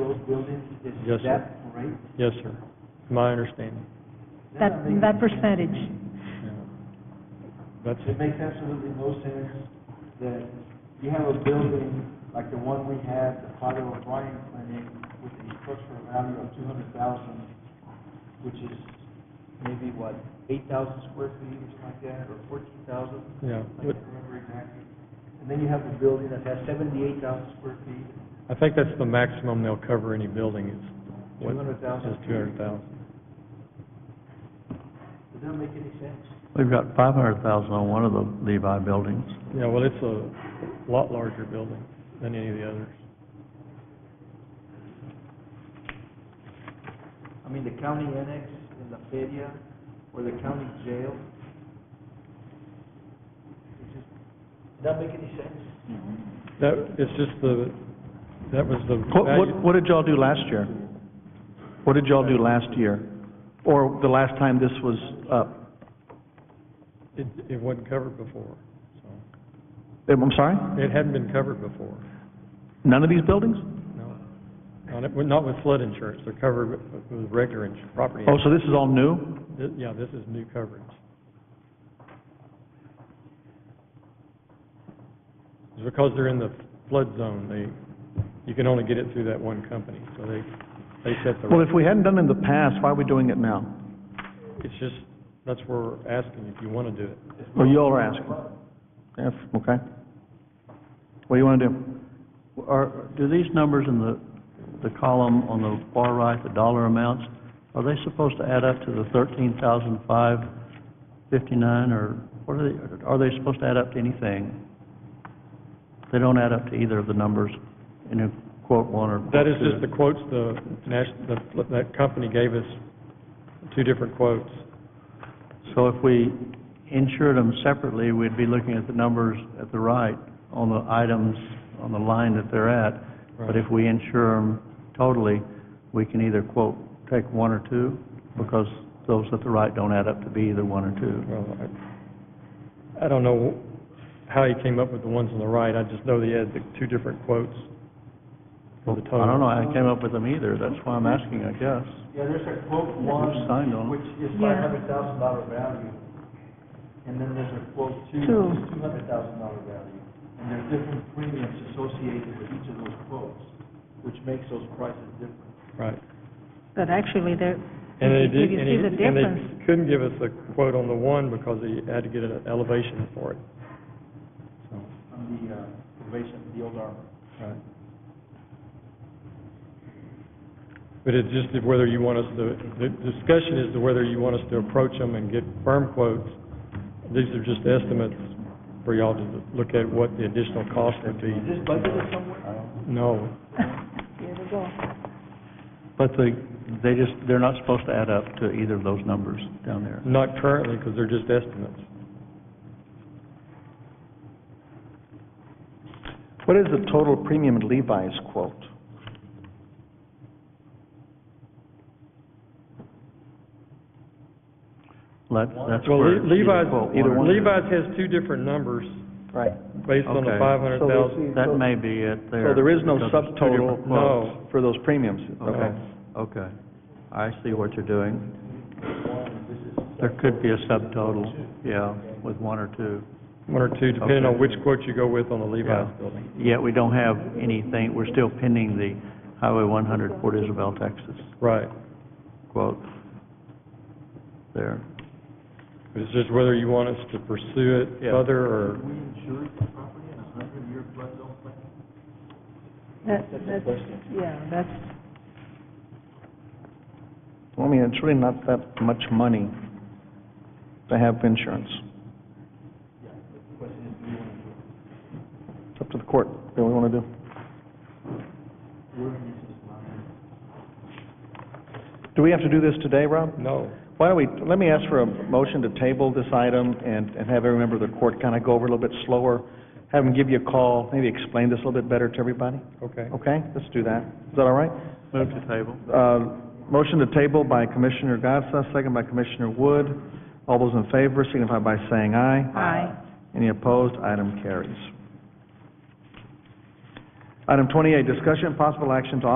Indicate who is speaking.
Speaker 1: building is
Speaker 2: Yes, sir.
Speaker 1: that rate?
Speaker 2: Yes, sir. My understanding.
Speaker 1: That
Speaker 3: that,
Speaker 1: makes-
Speaker 3: that percentage.
Speaker 2: Yeah. That's,
Speaker 1: It makes absolutely no sense that you have a building like the one we have, the Father O'Brien Clinic, with a structural value of two hundred thousand, which is maybe what, eight thousand square feet or something like that, or fourteen thousand?
Speaker 2: yeah.
Speaker 1: I can't remember exactly. And then you have a building that has seventy-eight thousand square feet,
Speaker 2: I think that's the maximum they'll cover any building is, what, is
Speaker 1: 200,000.
Speaker 2: two hundred thousand.
Speaker 1: does that make any sense?
Speaker 4: We've got five hundred thousand on one of the Levi buildings.
Speaker 2: Yeah, well, it's a lot larger building than any of the others.
Speaker 1: I mean, the county annex in La Feria, or the county jail. It's just- Does that make any sense?
Speaker 2: That, it's just the, that was the
Speaker 4: What,
Speaker 2: value,
Speaker 4: what, what did y'all do last year? What did y'all do last year? Or the last time this was up?
Speaker 2: it, it wasn't covered before, so.
Speaker 4: Eh, I'm sorry?
Speaker 2: It hadn't been covered before,
Speaker 4: None of these buildings?
Speaker 2: no. Not, it- not with flood insurance, they're covered with- with regular ins, property.
Speaker 4: Oh, so this is all new?
Speaker 2: Thi- Yeah, this is new coverage. 'Cause Because they're in the flood zone, they, you can only get it through that one company, so they, they set the.
Speaker 4: Well, if we hadn't done it in the past, why are we doing it now?
Speaker 2: It's just, that's where we're asking if you want to do it.
Speaker 4: Well, you all are asking. Yes, okay. What do you want to do?
Speaker 5: Are, do these numbers in the, the column on the far right, the dollar amounts, are they supposed to add up to the thirteen thousand five fifty-nine, or what are they, are they supposed to add up to anything? They don't add up to either of the numbers in quote one or quote
Speaker 2: That is
Speaker 5: two.
Speaker 2: just the quotes the national, the, that company gave us, two different quotes.
Speaker 5: So if we insured them separately, we'd be looking at the numbers at the right on the items, on the line that they're at.
Speaker 2: Right.
Speaker 5: But if we insure them totally, we can either quote, take one or two, because those at the right don't add up to be either one or two.
Speaker 2: Well, I, I don't know how he came up with the ones on the right, I just know they had the two different quotes for the total.
Speaker 5: I don't know, I came up with them either, that's why I'm asking, I guess.
Speaker 1: Yeah, there's a quote
Speaker 5: signed
Speaker 1: one,
Speaker 5: on it.
Speaker 1: which is
Speaker 3: Yeah.
Speaker 1: five hundred thousand dollar value, and then there's a quote two,
Speaker 3: Two.
Speaker 1: which is two hundred thousand dollar value. And there's different premiums associated with each of those quotes, which makes those prices different.
Speaker 2: Right.
Speaker 3: But actually, there,
Speaker 2: And they
Speaker 3: if you- if
Speaker 2: did,
Speaker 3: you
Speaker 2: and
Speaker 3: see the
Speaker 2: he, and
Speaker 3: difference,
Speaker 2: they couldn't give us a quote on the one because he had to get an elevation for it.
Speaker 1: on the uh, probation, the old armor.
Speaker 2: Right. But it's just if whether you want us to, the discussion is to whether you want us to approach them and get firm quotes. These are just estimates for y'all to look at what the additional cost would be.
Speaker 1: Is this budgeted somewhere?
Speaker 2: No,
Speaker 3: here we go.
Speaker 5: But they, they just, they're not supposed to add up to either of those numbers down there.
Speaker 2: not currently, because they're just estimates.
Speaker 4: What is the total premium at Levi's quote?
Speaker 5: That, that's
Speaker 2: Well,
Speaker 5: where.
Speaker 2: Le- Levi's,
Speaker 5: quote one or two.
Speaker 2: Levi's has two different numbers
Speaker 4: Right.
Speaker 2: based on the
Speaker 5: Okay.
Speaker 2: five hundred thousand.
Speaker 5: That may be it there.
Speaker 4: So there is no
Speaker 5: because it's two
Speaker 4: subtotal
Speaker 5: different quotes.
Speaker 2: No.
Speaker 4: for those premiums?
Speaker 5: Okay, okay. I see what you're doing. There could be a subtotal, yeah, with one or two.
Speaker 2: One or two, depending on
Speaker 5: Okay.
Speaker 2: which quote you go with on the
Speaker 5: Yeah.
Speaker 2: Levi's building.
Speaker 5: Yet we don't have anything, we're still pending the Highway 100 Port Isabel, Texas
Speaker 2: Right.
Speaker 5: quote there.
Speaker 2: But it's just whether you want us to pursue it
Speaker 5: Yeah.
Speaker 2: further or.
Speaker 1: We insured the property in a hundred-year flood zone plan?
Speaker 3: That,
Speaker 1: That's a
Speaker 3: that's,
Speaker 1: question.
Speaker 3: yeah, that's,
Speaker 4: Well, I mean, it's really not that much money to have insurance.
Speaker 1: Yeah, the question is, do you want to do it?
Speaker 4: It's up to the court, what we want to do.
Speaker 1: We're in this as well.
Speaker 4: Do we have to do this today, Rob?
Speaker 2: No.
Speaker 4: Why don't we, let me ask for a motion to table this item and, and have every member of the court kind of go over it a little bit slower, have them give you a call, maybe explain this a little bit better to everybody?
Speaker 2: Okay.
Speaker 4: Okay, let's do that. Is that all right?
Speaker 5: Move to table.
Speaker 4: Uh, motion to table by Commissioner Gatsa, second by Commissioner Wood. All those in favor signify by saying aye.
Speaker 3: Aye.
Speaker 4: Any opposed? Item carries. Item twenty-eight, discussion and possible action to